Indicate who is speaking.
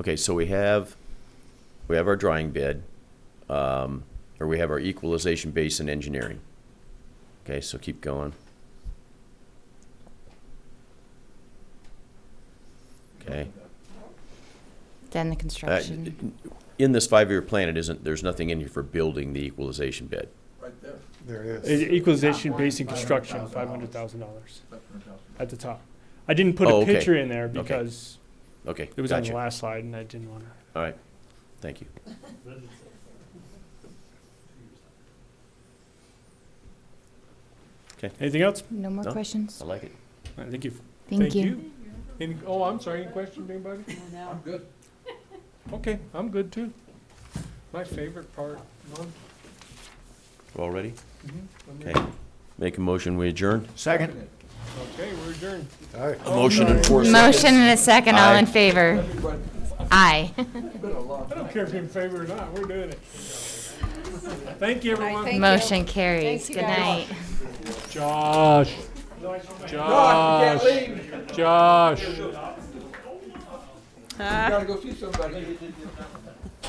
Speaker 1: Okay, so we have, we have our drying bed, um, or we have our equalization base in engineering. Okay, so keep going. Okay.
Speaker 2: Then the
Speaker 1: Uh,
Speaker 2: construction.
Speaker 1: In this five-year plan, it isn't, there's nothing in here for building the equalization bed.
Speaker 3: Right there,
Speaker 4: There
Speaker 5: E-
Speaker 4: is.
Speaker 5: Equalization
Speaker 3: Top
Speaker 5: based in
Speaker 3: one,
Speaker 5: construction, five hundred thousand
Speaker 3: $500,000.
Speaker 5: dollars
Speaker 3: seven hundred thousand.
Speaker 5: at the top. I didn't put
Speaker 1: Oh,
Speaker 5: a
Speaker 1: okay.
Speaker 5: picture in there
Speaker 1: Okay.
Speaker 5: because
Speaker 1: Okay,
Speaker 5: it was on the
Speaker 1: gotcha.
Speaker 5: last slide and I didn't wanna.
Speaker 1: All right, thank you.
Speaker 5: Anything else?
Speaker 2: No more
Speaker 1: No.
Speaker 2: questions?
Speaker 1: I like it.
Speaker 5: I think you've.
Speaker 2: Thank you.
Speaker 5: Any, oh, I'm sorry, any questions, anybody?
Speaker 3: I'm good.
Speaker 5: Okay, I'm good too. My favorite part, Norm,
Speaker 1: We're all ready?
Speaker 5: when we-
Speaker 1: Okay. Make a motion, we adjourn?
Speaker 4: Second.
Speaker 5: okay, we're adjourned.
Speaker 4: All right.
Speaker 1: A motion in four seconds.
Speaker 2: Motion and a second, all in
Speaker 1: Aye.
Speaker 2: favor?
Speaker 3: Everybody,
Speaker 2: Aye.
Speaker 3: it's been a long
Speaker 5: I
Speaker 3: time.
Speaker 5: don't care if you're in favor or not, we're doing it. Thank you, everyone.
Speaker 6: you.
Speaker 2: Motion carries. Good night.
Speaker 5: Josh.
Speaker 3: Gosh,
Speaker 5: Josh,
Speaker 3: Oh, you can't leave, you
Speaker 5: Josh.
Speaker 3: gotta go see somebody.